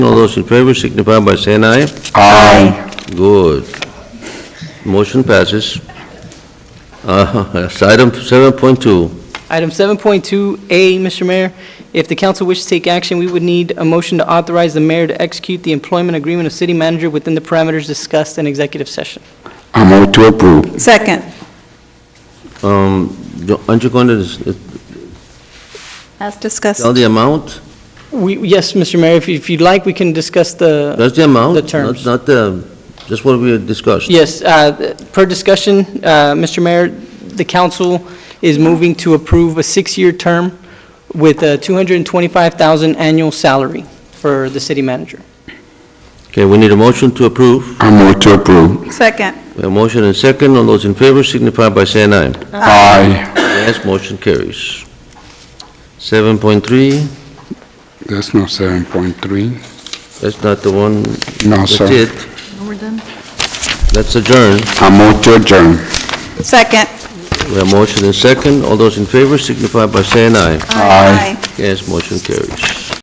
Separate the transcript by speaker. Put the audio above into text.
Speaker 1: All those in favor signify by saying aye.
Speaker 2: Aye.
Speaker 1: Good. Motion passes. Uh, that's Item 7.2,
Speaker 3: Item 7.2A, Mr. Mayor, if the council wishes to take action, we would need a motion to authorize the mayor to execute the employment agreement of city manager within the parameters discussed in executive session.
Speaker 2: I move to approve.
Speaker 4: Second.
Speaker 1: Um, do- aren't you going to s-
Speaker 4: As discussed.
Speaker 1: tell the amount?
Speaker 3: We, yes, Mr. Mayor, if- if you'd like, we can discuss the,
Speaker 1: That's the amount?
Speaker 3: The terms.
Speaker 1: Not not the, just what we discussed?
Speaker 3: yes, uh, per discussion, uh, Mr. Mayor, the council is moving to approve a six-year term with a $225,000 annual salary for the city manager.
Speaker 1: Okay, we need a motion to approve.
Speaker 2: I move to approve.
Speaker 4: Second.
Speaker 1: A motion and second. All those in favor signify by saying aye.
Speaker 2: Aye.
Speaker 1: Yes, motion carries. 7.3,
Speaker 2: That's not 7.3.
Speaker 1: that's not the one,
Speaker 2: No,
Speaker 1: that's
Speaker 2: sir.
Speaker 1: it. Let's adjourn.
Speaker 2: I move to adjourn.
Speaker 4: Second.
Speaker 1: We have motion and second. All those in favor signify by saying aye.
Speaker 4: Aye.
Speaker 1: Yes, motion carries.